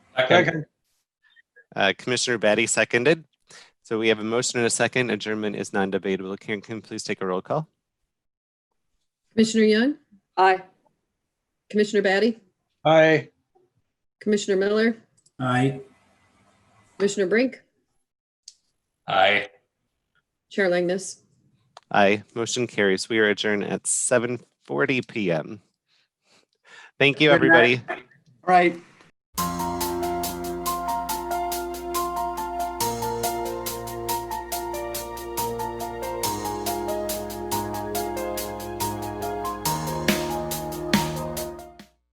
Second. Uh, Commissioner Batty seconded. So we have a motion and a second. Adjournment is non-debatable. Karen, can you please take a roll call? Commissioner Young, Aye. Commissioner Batty, Aye. Commissioner Miller, Aye. Commissioner Brink, Aye. Chair Langness. Aye. Motion carries. We are adjourned at 7:40 PM. Thank you, Good night. everybody. Right.